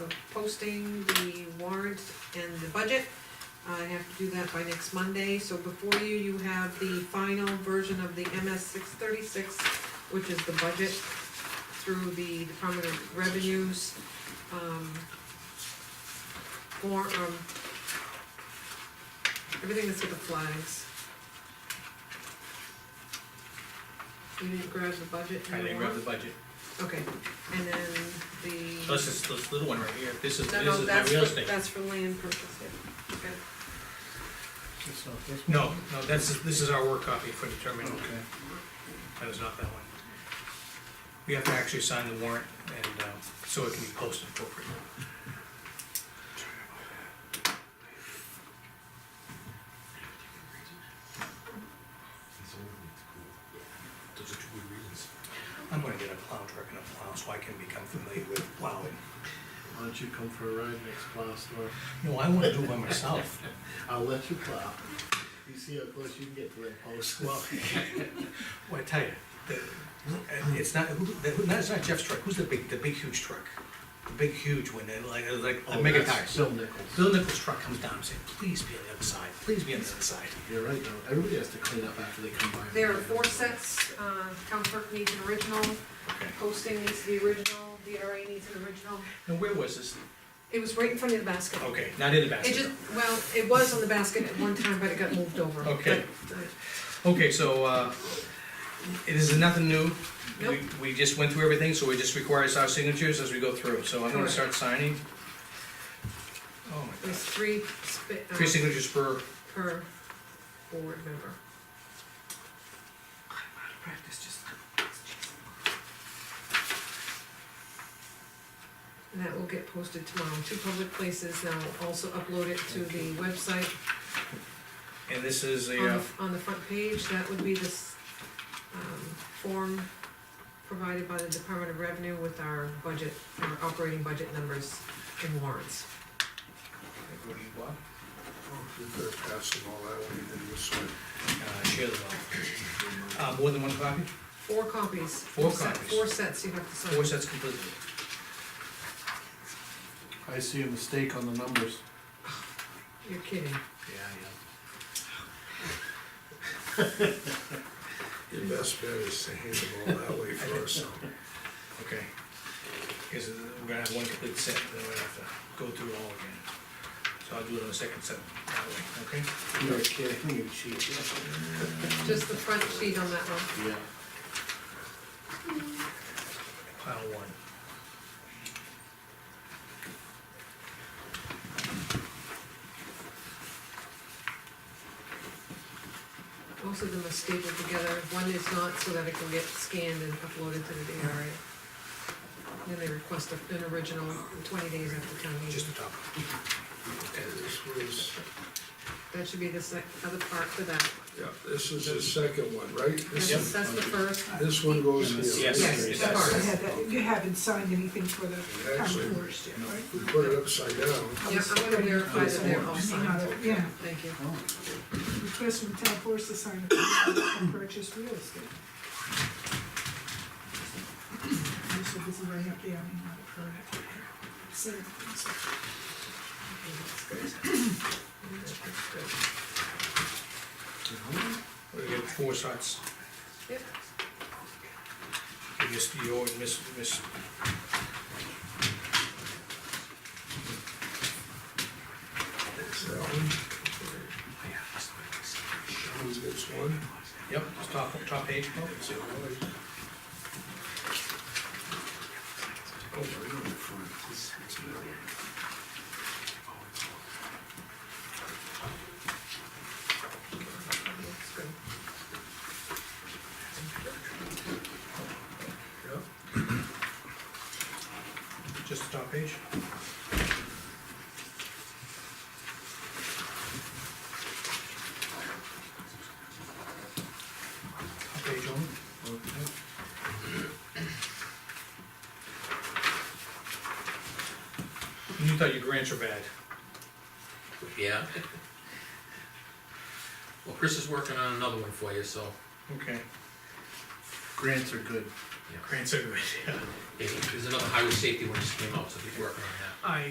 of posting the warrant and the budget. I have to do that by next Monday, so before you, you have the final version of the MS six thirty-six, which is the budget through the Department of Revenues, um, for, um, everything that's with the flags. You didn't grab the budget? I didn't grab anymore? the budget. Okay, and then the. This is, this little one right here, this is, No, this no, is my that's real for, estate. that's for land purchase, yeah. Okay. It's not this one? No, no, that's, this is our work copy for the terminal, Okay. that was not that one. We have to actually sign the warrant and, uh, so it can be posted appropriately. Those are two good reasons. I'm gonna get a plow truck and a plow so I can become familiar with plowing. Why don't you come for a ride next plow store? No, I wanna do it by myself. I'll let you plow. You see how close you can get to that post. Well, well, I tell you, the, it's not, who, the, no, it's not Jeff's truck, who's the big, the big huge truck? The big huge one, that like, uh, like, the Oh, mega that's tires. Bill Nichols. Bill Nichols' truck comes down and says, please be on the other side, please be on the other side. You're right, though. Everybody has to clean up after they come by. There are four sets, uh, town clerk needs an original, Okay. posting needs the original, DRA needs an original. And where was this? It was right in front of the basket. Okay, not in the It basket. just, well, it was on the basket at one time, but it got moved over. Okay. But, uh, Okay, so, uh, it is nothing new. Nope. We, we just went through everything, so it just requires our signatures as we go through, so I'm gonna Correct. start signing. Oh my There's gosh, three spi- uh, three signatures per, per board member. I'm out of practice, just. And that will get posted tomorrow, in two public places, and I'll also upload it to the website. And this is On a, uh, the, on the front page, that would be this, um, form provided by the Department of Revenue with our budget, our operating budget numbers and warrants. what do you want? Oh. You better pass them all that way, then this way. Uh, share the wealth. Uh, more than one copy? Four copies. Four set- copies. Four sets you have to sign. Four sets completely. I see a mistake on the numbers. You're kidding. Yeah, yeah. Your best bet is to hand them all that way first, so. Okay. Because we're gonna have one complete set, then we're gonna have to go through it all again. So I'll do it on the second set, that way, okay? You're kidding, you cheat. Just the front sheet on that one. Yeah. Pile one. Most of them are stapled together. One is not, so that it can get scanned and uploaded to the DRA. Then they request a- an original twenty days after town meeting. Just the top. Okay, this was, That should be the sec, other part for that. yeah, this is the second one, right? This That's, is- that's the first. This one goes here. Yes. Yes, it the does. cards. Yeah, that- You haven't signed anything for the Actually, town forest yet, right? We put it upside down. Yeah, I'm gonna verify that they're all signed. Yeah, Thank you. Oh, request from town forest to sign a contract to purchase real estate. I'm so busy writing up the, I mean, not a permit. So, so- We get four shots. Yep. You just, you always miss, miss. It's that one. Sean's gets one. Yep, it's top, top page, Paul. Oh, right on the front. It's- it's another one. That's good. Yep. just the top page. Top page only. okay. You thought your grants were bad. Yeah. Well, Chris is working on another one for you, so, Okay. Grants are good. Grants are good, yeah. yeah, there's another highway safety one just came out, so he's working on that. I